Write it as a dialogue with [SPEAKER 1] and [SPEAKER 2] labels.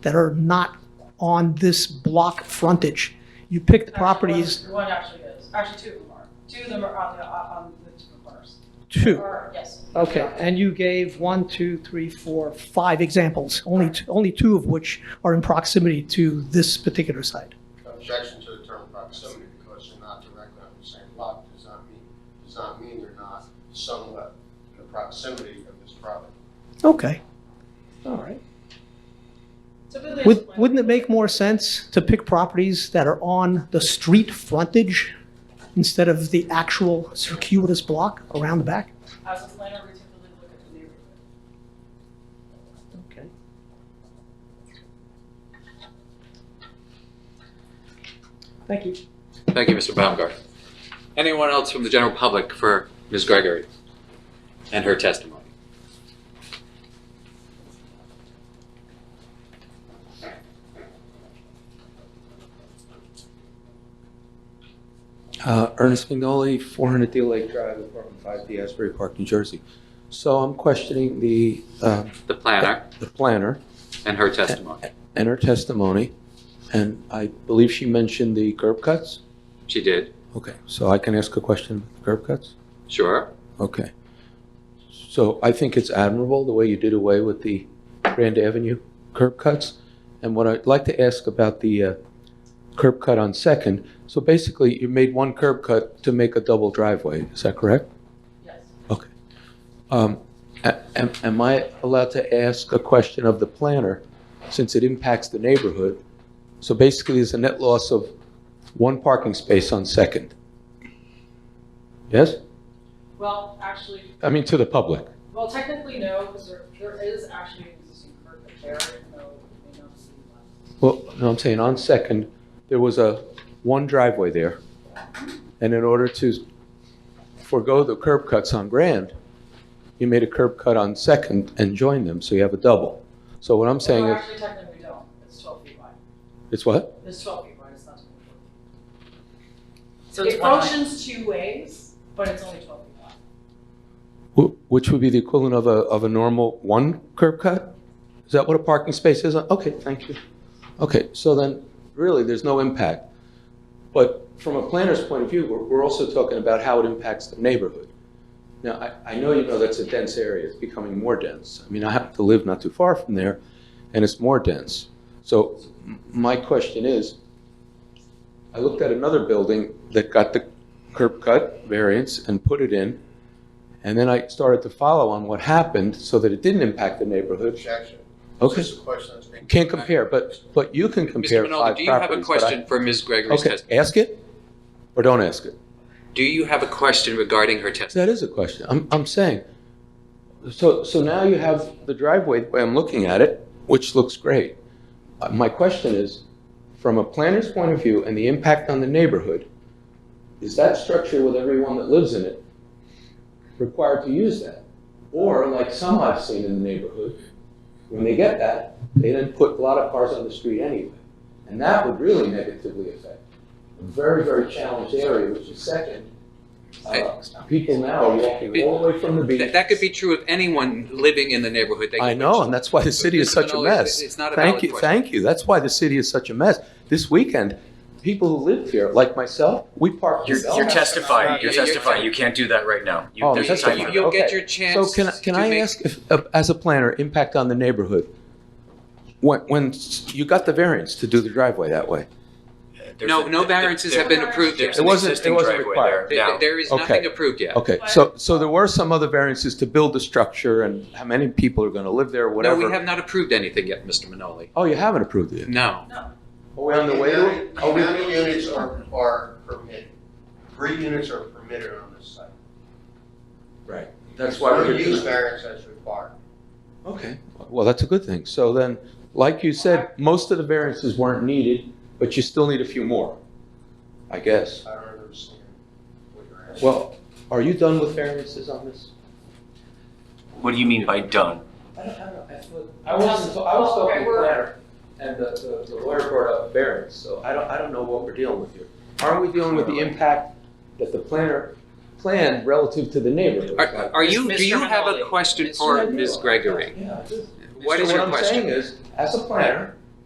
[SPEAKER 1] that are not on this block frontage. You picked properties,
[SPEAKER 2] One actually is, actually two of them are, two of them are on the, uh, on the two corners.
[SPEAKER 1] two.
[SPEAKER 2] Or, yes.
[SPEAKER 1] Okay, and you gave one, two, three, four, five examples, only, t- only two of which are in proximity to this particular site.
[SPEAKER 3] Objection to the term proximity because they're not directly on the same lot does not mean, does not mean they're not somewhat in the proximity of this property.
[SPEAKER 1] Okay, all right.
[SPEAKER 2] Typically,
[SPEAKER 1] Would-
[SPEAKER 2] it's-
[SPEAKER 1] Wouldn't it make more sense to pick properties that are on the street frontage instead of the actual circuitous block around the back?
[SPEAKER 2] As a planner, we typically look at the neighborhood.
[SPEAKER 1] Okay. Thank you.
[SPEAKER 4] Thank you, Mr. Baumgart. Anyone else from the general public for Ms. Gregory and her testimony?
[SPEAKER 5] Uh, Ernest McNolly, 400 Deal Lake Drive, apartment 5D, Asbury Park, New Jersey. So I'm questioning the, uh,
[SPEAKER 4] The planner
[SPEAKER 5] the planner
[SPEAKER 4] and her testimony.
[SPEAKER 5] and her testimony, and I believe she mentioned the curb cuts?
[SPEAKER 4] She did,
[SPEAKER 5] Okay, so I can ask a question about the curb cuts?
[SPEAKER 4] sure.
[SPEAKER 5] Okay. So I think it's admirable the way you did away with the Grand Avenue curb cuts. And what I'd like to ask about the uh, curb cut on Second, so basically you made one curb cut to make a double driveway, is that correct?
[SPEAKER 2] Yes.
[SPEAKER 5] Um, a- Am am I allowed to ask a question of the planner, since it impacts the neighborhood? So basically, there's a net loss of one parking space on Second. Yes?
[SPEAKER 2] Well, actually,
[SPEAKER 5] I mean, to the public.
[SPEAKER 2] well, technically, no, because there, there is actually an existing curb cut there, even though it may not see that.
[SPEAKER 5] Well, no, I'm saying on Second, there was a one driveway there. And in order to forego the curb cuts on Grand, you made a curb cut on Second and joined them, so you have a double. So what I'm saying
[SPEAKER 2] No,
[SPEAKER 5] is,
[SPEAKER 2] actually, technically, we don't. It's twelve feet wide.
[SPEAKER 5] it's what?
[SPEAKER 2] It's twelve feet wide, it's not twenty-four feet.
[SPEAKER 6] So
[SPEAKER 2] It functions two ways, but it's only twelve feet wide.
[SPEAKER 5] Wh- Which would be the equivalent of a, of a normal one curb cut? Is that what a parking space is? Okay, thank you. Okay, so then, really, there's no impact. But from a planner's point of view, we're, we're also talking about how it impacts the neighborhood. Now, I, I know you know that's a dense area, it's becoming more dense. I mean, I happen to live not too far from there, and it's more dense. So m- my question is, I looked at another building that got the curb cut variance and put it in, and then I started to follow on what happened so that it didn't impact the neighborhood.
[SPEAKER 3] Objection.
[SPEAKER 5] Okay.
[SPEAKER 3] This is a question that's being.
[SPEAKER 5] Can't compare, but, but you can
[SPEAKER 4] Mr.
[SPEAKER 5] compare
[SPEAKER 4] Minaldi,
[SPEAKER 5] five
[SPEAKER 4] do you have a
[SPEAKER 5] properties. but I-
[SPEAKER 4] question for Ms. Gregory's
[SPEAKER 5] Okay,
[SPEAKER 4] testimony?
[SPEAKER 5] ask it or don't ask it.
[SPEAKER 4] Do you have a question regarding her testimony?
[SPEAKER 5] That is a question. I'm, I'm saying, so, so now you have the driveway, the way I'm looking at it, which looks great. Uh, My question is, from a planner's point of view and the impact on the neighborhood, is that structure with everyone that lives in it required to use that? Or like some I've seen in the neighborhood, when they get that, they then put a lot of cars on the street anyway. And that would really negatively affect a very, very challenged area, which is second. Uh, People now are walking all the way from the beach.
[SPEAKER 4] That that could be true of anyone living in the neighborhood. They-
[SPEAKER 5] I know, and that's why the city is such a
[SPEAKER 4] No, it's-
[SPEAKER 5] mess.
[SPEAKER 4] it's not a
[SPEAKER 5] Thank
[SPEAKER 4] valid
[SPEAKER 5] you,
[SPEAKER 4] question.
[SPEAKER 5] Thank you, that's why the city is such a mess. This weekend, people who lived here, like myself, we parked. in
[SPEAKER 7] You're,
[SPEAKER 5] Belmar.
[SPEAKER 7] you're testifying. You're
[SPEAKER 4] You're- you're-
[SPEAKER 7] testifying. You can't do that right now. You,
[SPEAKER 5] Oh, I'm
[SPEAKER 7] there's a time
[SPEAKER 5] testifying.
[SPEAKER 7] limit.
[SPEAKER 4] You'll get
[SPEAKER 5] Okay.
[SPEAKER 4] your
[SPEAKER 5] So
[SPEAKER 4] chance
[SPEAKER 5] can, I- can
[SPEAKER 4] to
[SPEAKER 5] I
[SPEAKER 4] make-
[SPEAKER 5] ask, if, uh, as a planner, impact on the neighborhood? When, when you got the variance to do the driveway that way?
[SPEAKER 7] There's
[SPEAKER 4] No,
[SPEAKER 7] a-
[SPEAKER 4] no
[SPEAKER 7] there-
[SPEAKER 4] variances have
[SPEAKER 7] there-
[SPEAKER 4] been approved yet.
[SPEAKER 7] There's
[SPEAKER 5] It
[SPEAKER 7] an
[SPEAKER 5] wasn't- it
[SPEAKER 7] existing
[SPEAKER 5] wasn't
[SPEAKER 7] driveway
[SPEAKER 4] Th-
[SPEAKER 5] required.
[SPEAKER 7] there
[SPEAKER 4] th-
[SPEAKER 7] now.
[SPEAKER 4] There is
[SPEAKER 5] Okay.
[SPEAKER 4] nothing approved yet.
[SPEAKER 5] Okay, so, so there were some other variances to build the structure and how many people are going to live there,
[SPEAKER 4] No,
[SPEAKER 5] whatever.
[SPEAKER 4] we have not approved anything yet, Mr. Minaldi.
[SPEAKER 5] Oh, you haven't approved it?
[SPEAKER 4] No.
[SPEAKER 5] Are we on the way to it?
[SPEAKER 3] How many- how many units are, are permitted? Three units are permitted on this site.
[SPEAKER 5] Right, that's why we're
[SPEAKER 3] No
[SPEAKER 5] here.
[SPEAKER 3] Use variance as required.
[SPEAKER 5] Okay, well, that's a good thing. So then, like you said, most of the variances weren't needed, but you still need a few more, I guess.
[SPEAKER 3] I don't understand what you're asking.
[SPEAKER 5] Well, are you done with variances on this?
[SPEAKER 7] What do you mean by done?
[SPEAKER 5] I don't, I don't, I thought-
[SPEAKER 2] wasn't- I was talking to the planner,
[SPEAKER 5] and the, the lawyer brought up variance, so I don't, I don't know what we're dealing with here. Aren't we dealing with the impact that the planner planned relative to the neighborhood?
[SPEAKER 4] Are, are you, do
[SPEAKER 6] Mr.
[SPEAKER 4] you have a
[SPEAKER 6] Minaldi.
[SPEAKER 4] question
[SPEAKER 6] Mr.
[SPEAKER 4] uh, for Ms. Gregory?
[SPEAKER 5] Yeah, I do.
[SPEAKER 4] What
[SPEAKER 5] So
[SPEAKER 4] is your
[SPEAKER 5] What I'm
[SPEAKER 4] question?
[SPEAKER 5] saying is, as a planner,